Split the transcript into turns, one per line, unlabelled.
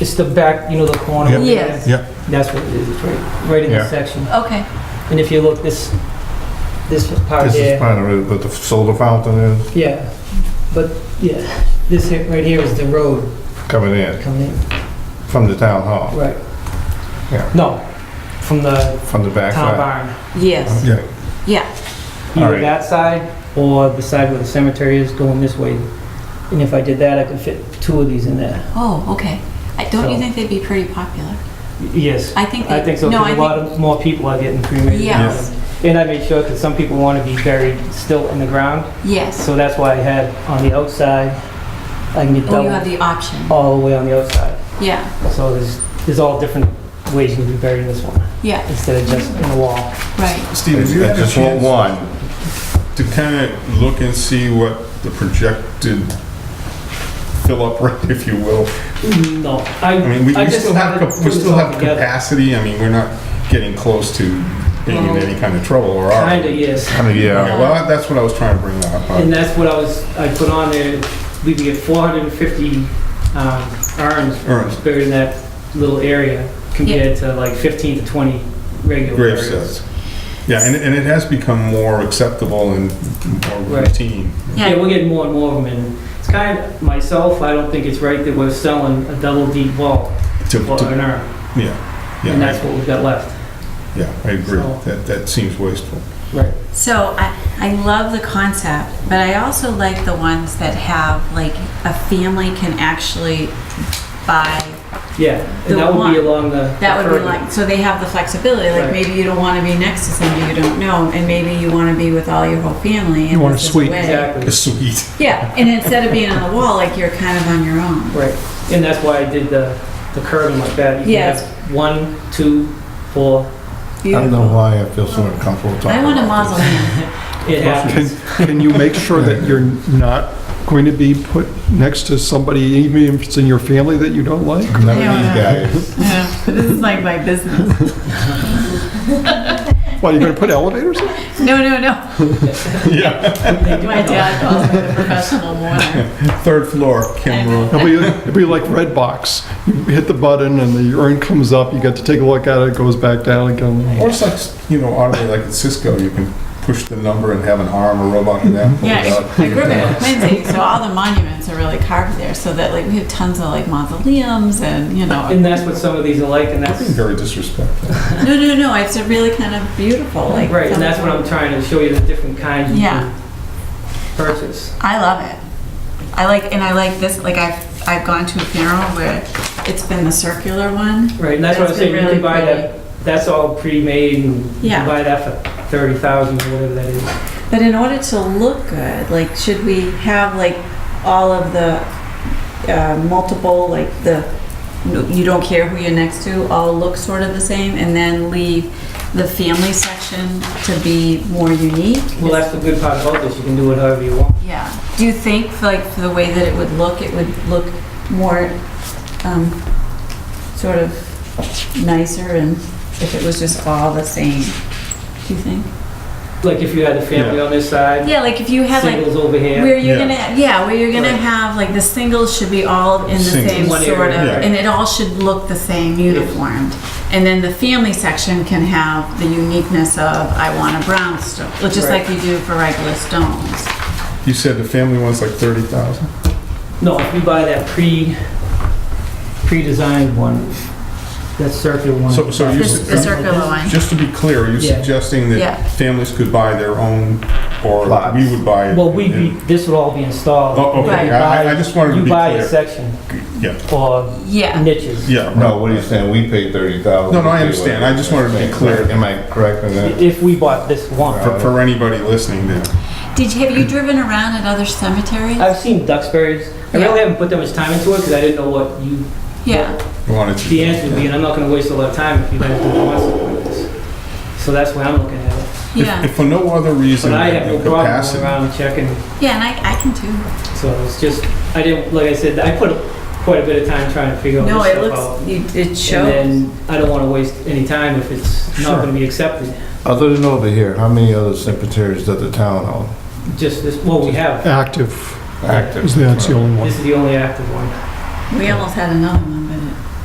It's the back, you know, the corner.
Yeah.
Yes.
Yeah.
That's what it is, it's right, right in the
Yeah.
section.
Okay,
And if you look, this, this part
This is
there,
part of it, but the solar fountain is
yeah. But, yeah, this here, right here is the road
coming in
coming in,
from the town hall,
right?
Oh. Yeah.
No, from the
from the back
town
side.
barn.
yes,
Yeah,
yeah,
Either
Alright.
that side or the side where the cemetery is going this way. And if I did that, I could fit two of these in there.
oh, okay. I- Don't you
So-
think they'd be pretty popular?
Y- Yes.
I think,
I
they-
think so,
no, I
because a lot
think,
of more people are getting cremated. now.
Yes.
And I made sure, because some people want to be buried still in the ground,
yes.
so that's why I had on the outside, I can get
Or Oh, you have
double
the option,
all the way on the outside.
yeah,
So there's, there's all different ways you can be buried in this one,
yeah,
instead of just in the wall.
right,
Steve, if you
I
had a
just want
chance
one.
to kind of look and see what the projected fill-up rate, if you will.
No, I,
I mean, we
I
we
just
still have,
haven't
cap-
put
we
this
still
all
have
together.
capacity, I mean, we're not getting close to being in
No.
any kind of trouble, or are we?
Kinda, yes.
Kind of,
Okay,
yeah.
well, that's what I was trying to bring up. uh,
And that's what I was, I put on there, we could get 450 um, urns
Urns.
buried in that little area compared to like 15 to 20 regular
Grave
areas.
sets. Yeah, and, and it has become more acceptable and more
Right.
routine.
Yeah,
yeah,
we're getting more and more of them, and it's kind of, myself, I don't think it's right that we're selling a double deep wall
To,
for
to,
an urn,
yeah,
and that's
yeah,
what we've got left.
I- yeah, I agree.
So-
That, that seems wasteful.
Right.
so I, I love the concept, but I also like the ones that have, like, a family can actually buy
Yeah,
The
and that would be
one-
along the.
That
the
would be
curb.
like, so they have the flexibility, like
Right.
maybe you don't want to be next to somebody you don't know, and maybe you want to be with all your whole family. and
You want a
this is
suite.
way-
Exactly,
Sweet.
Yeah, and instead of being on the wall, like you're kind of on your own.
right, and that's why I did the, the curving like that. You can
Yes.
have One, two, four,
I don't know
Beautiful.
why I feel so uncomfortable talking
I want a
about this.
mausoleum.
it
Can,
happens.
can you make sure that you're not going to be put next to somebody, even if it's in your family that you don't like?
None
Yeah.
of these guys.
Yeah, This is like my business.
What, you're going to put elevators in?
No, no, no.
Yeah,
My dad calls me the professional mourner.
third floor, Kim Road.
It'll be, it'll be like Red Box. You hit the button and the urn comes up, you get to take a look at it, it goes back down again.
Or it's like, you know, oddly, like at Cisco, you can push the number and have an arm or robot in that.
Yeah, I grew up in Quincy, so all the monuments are really carved there, so that like we have tons of like mausoleums and, you know.
And that's what some of these are like, and that's,
Very disrespectful.
No, no, no, it's a really kind of beautiful, like.
right, and that's what I'm trying to show you, the different kinds you
Yeah.
can purchase.
I love it. I like, and I like this, like I've, I've gone to a funeral where it's been the circular one.
Right, and that's what I'm
That's
saying,
been
you can
really
buy that, that's all pre-made, and you
Yeah.
can buy that for 30,000 or whatever that is.
But in order to look good, like, should we have like all of the uh, multiple, like the, you don't care who you're next to, all look sort of the same, and then leave the family section to be more unique?
Well, that's the good part about this, you can do it however you want.
Yeah. Do you think, like, for the way that it would look, it would look more, um, sort of nicer and if it was just all the same? Do you think?
Like if you had the family on this side,
Yeah, like if you had like,
singles over here,
where you're
Yeah.
gonna, yeah, where you're gonna
Right.
have, like, the singles should be all in the
Singles.
same
One
sort of,
area,
right.
and it all should look the same, uniformed. And then the family section can have the uniqueness of, I want a brownstone, just
Right.
like you do for regular stones.
You said the family one's like 30,000?
no, if you buy that pre, pre-designed one, that circular one.
So, so you,
The the
s-
circular one.
just to be clear, are you
Yeah.
suggesting
Yeah.
that families could buy their own or
Lots.
we would buy it?
Well, we,
and-
we- this would all be installed.
Oh, okay,
Right.
I, I- I just wanted to
You
be
buy a
clear.
section
Yeah,
or
Yeah.
niches.
yeah,
No,
no,
what are you saying? We paid thirty thousand.
No, no, I understand. I just wanted to be clear.
Am I correct in that?
If we bought this one.
for, for anybody listening there.
Did you, have you driven around at other cemeteries?
I've seen Duxbury's, I
Yeah.
really haven't put that much time into it because I didn't know what you,
yeah.
I wanted to.
the answer would be, and I'm not gonna waste a lot of time if you guys don't want something like this. So that's why I'm looking at it.
Yeah.
If- If for no other reason
But I have
than
no
the
problem going
capacity.
around checking,
yeah, and I, I can too.
so it's just, I didn't, like I said, I put quite a bit of time trying to figure all
No,
this
it
stuff out.
looks, you- it shows.
And then I don't want to waste any time if it's not
Sure.
going to be accepted.
Other than over here, how many other cemeteries does the town own?
Just this, well, we have,
Active,
Active.
is that's the only one.
this is the only active one.
We almost had another one.